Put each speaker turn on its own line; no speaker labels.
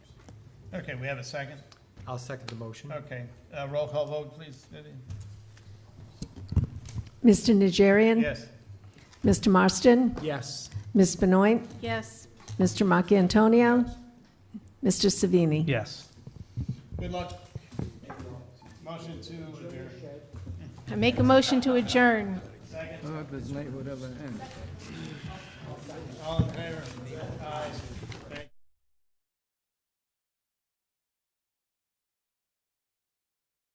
Okay, we have a second?
I'll second the motion.
Okay, uh, roll call vote, please, Lydia.
Mr. Najarian?
Yes.
Mr. Marston?
Yes.
Ms. Benoit?
Yes.
Mr. Marcantonio? Mr. Savini?
Yes.
Good luck. Motion to adjourn.
I make a motion to adjourn.
Hard as night would ever end.